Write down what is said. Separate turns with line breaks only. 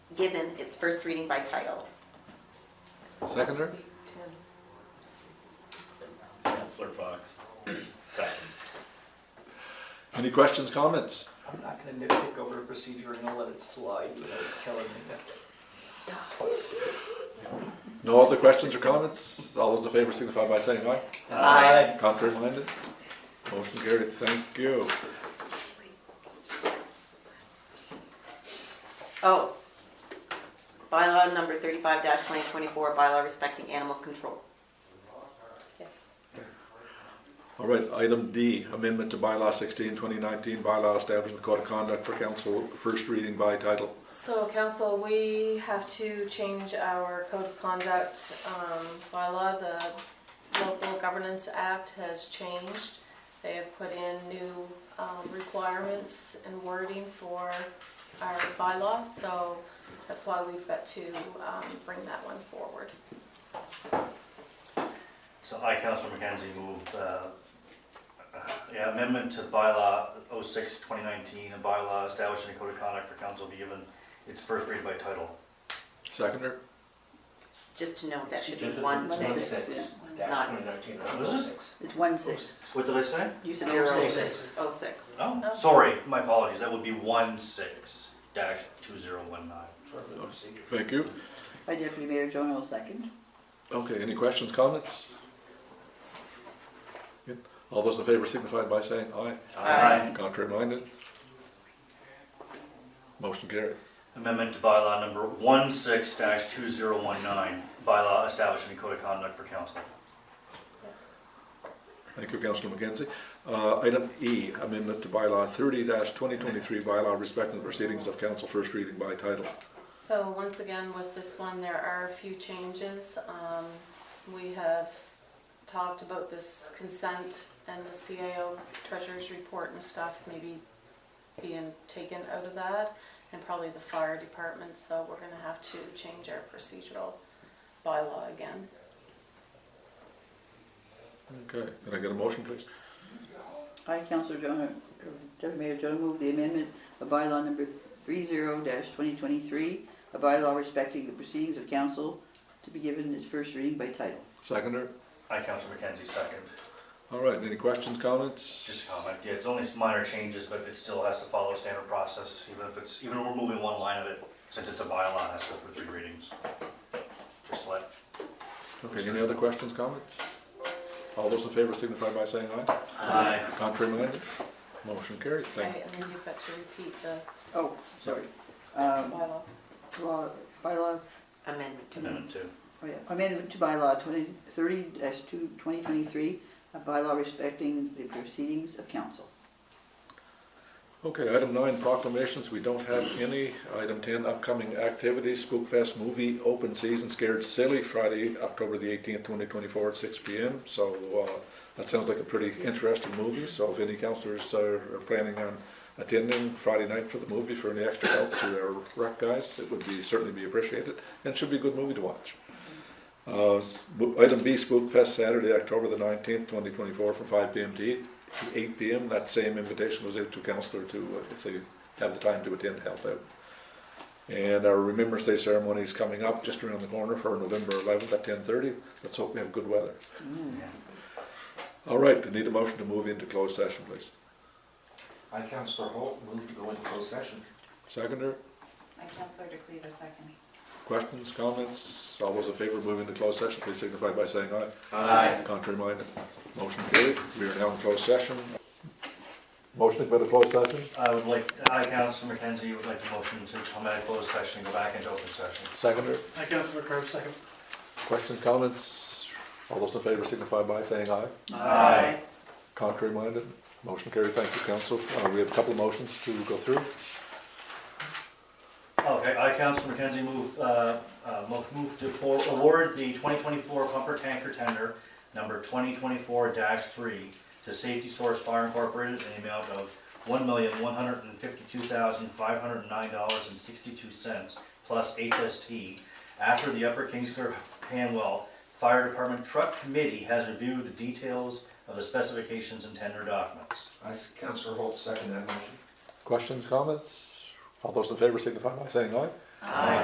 given its first reading by title.
Seconder?
Counselor Fox. Second.
Any questions, comments?
I'm not gonna nitpick over a procedure and I'll let it slide, you know, it's killing me.
No other questions or comments? All those in favor signify by saying aye.
Aye.
Contrary minded? Motion carried, thank you.
Oh, bylaw number thirty-five twenty twenty-four, bylaw respecting animal control.
Yes.
All right, item D, amendment to bylaw 16, 2019, bylaw establishing the code of conduct for council, first reading by title.
So council, we have to change our code of conduct um, by law. The Local Governance Act has changed. They have put in new um, requirements and wording for our bylaw, so that's why we've got to um, bring that one forward.
So I, Councillor McKenzie, move, uh, yeah, amendment to bylaw 06, 2019, a bylaw establishing a code of conduct for council be given its first read by title.
Seconder?
Just to note, that should be
She did it.
one
One
sentence.
six,
Not-
dash twenty nineteen,
Was it?
six.
It's one six.
What did I say?
You said
Zero
oh six.
six.
Oh six.
Oh,
No.
sorry, my apologies, that would be 16 dash 2019.
Sort of a procedure.
Thank you.
By Deputy Mayor Jonah, I'll second.
Okay, any questions, comments? Good. All those in favor signify by saying aye.
Aye.
Contrary minded? Motion carried.
Amendment to bylaw number 16 dash 2019, bylaw establishing a code of conduct for council.
Thank you, Councillor McKenzie. Uh, Item E, amendment to bylaw 30-2023, bylaw respecting the proceedings of council, first reading by title.
So once again, with this one, there are a few changes. Um, We have talked about this consent and the CAO treasurer's report and stuff maybe being taken out of that, and probably the fire department, so we're gonna have to change our procedural bylaw again.
Okay, can I get a motion, please?
I, Councillor Jonah, Deputy Mayor Jonah, move the amendment of bylaw number three zero twenty twenty-three, a bylaw respecting the proceedings of council to be given its first reading by title.
Seconder?
I, Councillor McKenzie, second.
All right, any questions, comments?
Just a comment, yeah, it's only some minor changes, but it still has to follow standard process, even if it's, even if we're moving one line of it, since it's a bylaw, it has to go through three readings. Just to let,
Okay, any other questions, comments? All those in favor signify by saying aye.
Aye.
Contrary minded? Motion carried, thank
Okay, And then you've got to repeat the
Oh, sorry. Um,
bylaw.
law, bylaw,
Amendment to
amendment two.
oh yeah, amendment to bylaw twenty, thirty dash two, twenty twenty-three, a bylaw respecting the proceedings of council.
Okay, item nine, proclamations, we don't have any. Item ten, upcoming activities, Spook Fest movie, open season, Scared Silly, Friday, October the eighteenth, twenty twenty-four, at six P M. So, uh, that sounds like a pretty interesting movie, so if any counselors are are planning on attending Friday night for the movie for any extra help to their rec guys, it would be, certainly be appreciated, and should be a good movie to watch. Uh, s- bo- Item B, Spook Fest, Saturday, October the 19th, 2024, from 5 PM to eight- to 8 PM. That same invitation was out to councillor to, uh, if they have the time to attend, help out. And our Remembrance Day ceremony is coming up just around the corner for November 11th at 10:30. Let's hope we have good weather. All right, I need a motion to move into closed session, please.
I, Councillor Holt, move to go into closed session.
Seconder,
I, Counselor DeCleva, second.
questions, comments? All those in favor of moving to closed session, please signify by saying aye.
Aye.
Contrary minded, motion carried. We are now in closed session. Motion to go to closed session?
I would like, I, Councillor McKenzie, would like the motion to come out of closed session and go back into open session.
Seconder,
I, Councillor Curve, second.
questions, comments? All those in favor signify by saying aye.
Aye.
Contrary minded, motion carried. Thank you, council. Uh, we have a couple of motions to go through.
Okay, I, Councillor McKenzie, move, uh, uh, mo- move to for, award the twenty twenty-four pumper tanker tender number twenty twenty-four three to Safety Source Fire Incorporated in the amount of one million, one hundred and fifty-two thousand, five hundred and nine dollars and sixty-two cents plus HST after the Upper Kingsclear Panwell Fire Department Truck Committee has reviewed the details of the specifications and tender documents.
I, Councillor Holt, second that motion.
Questions, comments? All those in favor signify by saying aye.